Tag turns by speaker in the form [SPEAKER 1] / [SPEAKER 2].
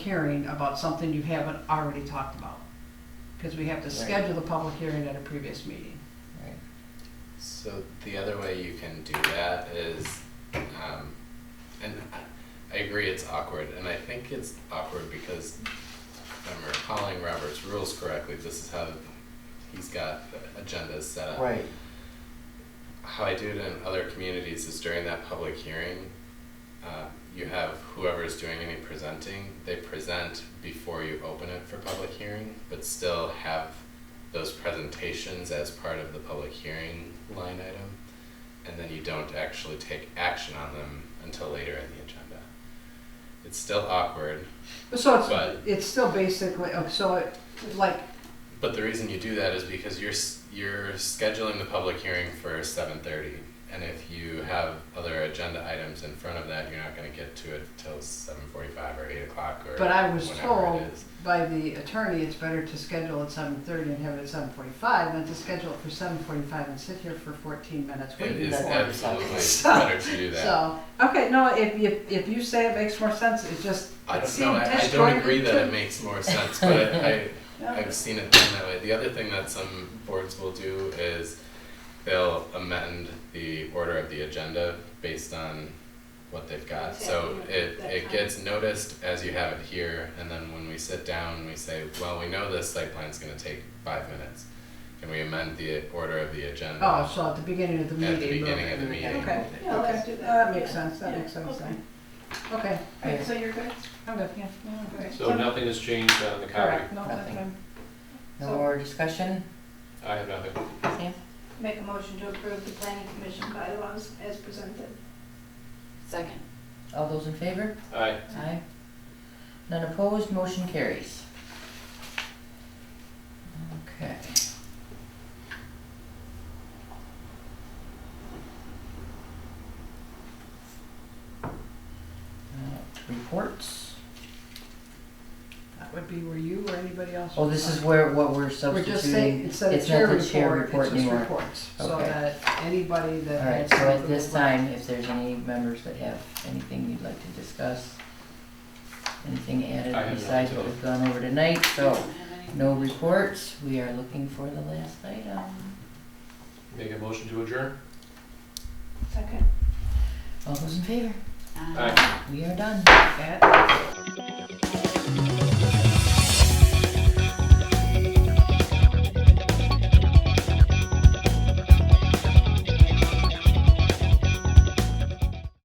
[SPEAKER 1] hearing about something you haven't already talked about. Because we have to
[SPEAKER 2] Right.
[SPEAKER 1] schedule the public hearing at a previous meeting.
[SPEAKER 2] Right.
[SPEAKER 3] So the other way you can do that is, um, and I- I agree it's awkward, and I think it's awkward because if I'm recalling Robert's rules correctly, this is how he's got the agendas set up.
[SPEAKER 2] Right,
[SPEAKER 3] How I do it in other communities is during that public hearing, uh, you have whoever's doing any presenting, they present before you open it for public hearing, but still have those presentations as part of the public hearing line item. And then you don't actually take action on them until later in the agenda. It's still awkward,
[SPEAKER 1] So it's,
[SPEAKER 3] But-
[SPEAKER 1] it's still basically, oh, so it, like,
[SPEAKER 3] But the reason you do that is because you're s- you're scheduling the public hearing for seven thirty, and if you have other agenda items in front of that, you're not going to get to it till seven forty-five or eight o'clock or.
[SPEAKER 1] but I was
[SPEAKER 3] whenever
[SPEAKER 1] told
[SPEAKER 3] it is.
[SPEAKER 1] by the attorney, it's better to schedule at seven thirty and have it at seven forty-five than to schedule it for seven forty-five and sit here for fourteen minutes
[SPEAKER 3] It
[SPEAKER 1] waiting.
[SPEAKER 3] is
[SPEAKER 2] that
[SPEAKER 1] for
[SPEAKER 2] one.
[SPEAKER 3] absolutely
[SPEAKER 1] So-
[SPEAKER 3] better to do that.
[SPEAKER 1] So, okay, no, if, if, if you say it makes more sense, it just,
[SPEAKER 3] I
[SPEAKER 1] it
[SPEAKER 3] don't know,
[SPEAKER 1] seemed
[SPEAKER 3] I, I
[SPEAKER 1] disjointed
[SPEAKER 3] don't agree that
[SPEAKER 1] to-
[SPEAKER 3] it makes more sense, but I, I,
[SPEAKER 1] Yeah.
[SPEAKER 3] I've seen it done that way. The other thing that some boards will do is they'll amend the order of the agenda based on what they've got. So it, it gets noticed as you have it here, and then when we sit down, we say, well, we know this site plan's gonna take five minutes. Can we amend the order of the agenda?
[SPEAKER 1] Oh, so at the beginning of the
[SPEAKER 3] At
[SPEAKER 1] meeting.
[SPEAKER 3] the beginning of the
[SPEAKER 1] okay.
[SPEAKER 3] meeting.
[SPEAKER 1] Okay,
[SPEAKER 4] Yeah, let's
[SPEAKER 1] okay,
[SPEAKER 4] do that.
[SPEAKER 1] that makes
[SPEAKER 4] Yeah.
[SPEAKER 1] sense, that
[SPEAKER 4] Yeah.
[SPEAKER 1] makes sense,
[SPEAKER 4] Okay.
[SPEAKER 1] then. okay,
[SPEAKER 4] Okay, so you're good?
[SPEAKER 1] I'm good, yeah, yeah, I'm good.
[SPEAKER 4] Okay.
[SPEAKER 5] So nothing has changed on the copy?
[SPEAKER 1] Correct, no, that's
[SPEAKER 2] Nothing.
[SPEAKER 1] fine.
[SPEAKER 2] no
[SPEAKER 1] So-
[SPEAKER 2] more discussion,
[SPEAKER 5] I have nothing.
[SPEAKER 2] Sam?
[SPEAKER 4] Make a motion to approve the planning commission bylaws as presented.
[SPEAKER 6] Second.
[SPEAKER 2] All those in favor?
[SPEAKER 5] Aye.
[SPEAKER 2] Aye. None opposed, motion carries. Okay. Uh, Reports?
[SPEAKER 1] That would be where you or anybody else.
[SPEAKER 2] Oh,
[SPEAKER 1] would
[SPEAKER 2] this is
[SPEAKER 1] sign.
[SPEAKER 2] where, what we're
[SPEAKER 1] We're
[SPEAKER 2] substituting.
[SPEAKER 1] just saying, instead of
[SPEAKER 2] It's not
[SPEAKER 1] chair
[SPEAKER 2] the chair
[SPEAKER 1] report, it's
[SPEAKER 2] report
[SPEAKER 1] just
[SPEAKER 2] anymore.
[SPEAKER 1] reports, so
[SPEAKER 2] Okay.
[SPEAKER 1] that anybody that.
[SPEAKER 2] All right,
[SPEAKER 1] had
[SPEAKER 2] so at
[SPEAKER 1] something
[SPEAKER 2] this
[SPEAKER 1] would-
[SPEAKER 2] time, if there's any members that have anything you'd like to discuss, anything added
[SPEAKER 5] I have
[SPEAKER 2] besides what
[SPEAKER 5] nothing.
[SPEAKER 2] we've gone over tonight,
[SPEAKER 6] I
[SPEAKER 2] so
[SPEAKER 6] don't have any.
[SPEAKER 2] no reports, we are looking for the last item.
[SPEAKER 5] Make a motion to adjourn?
[SPEAKER 4] Second.
[SPEAKER 2] All those in favor?
[SPEAKER 6] Um,
[SPEAKER 5] Aye.
[SPEAKER 2] We are done.
[SPEAKER 1] At
[SPEAKER 3] So-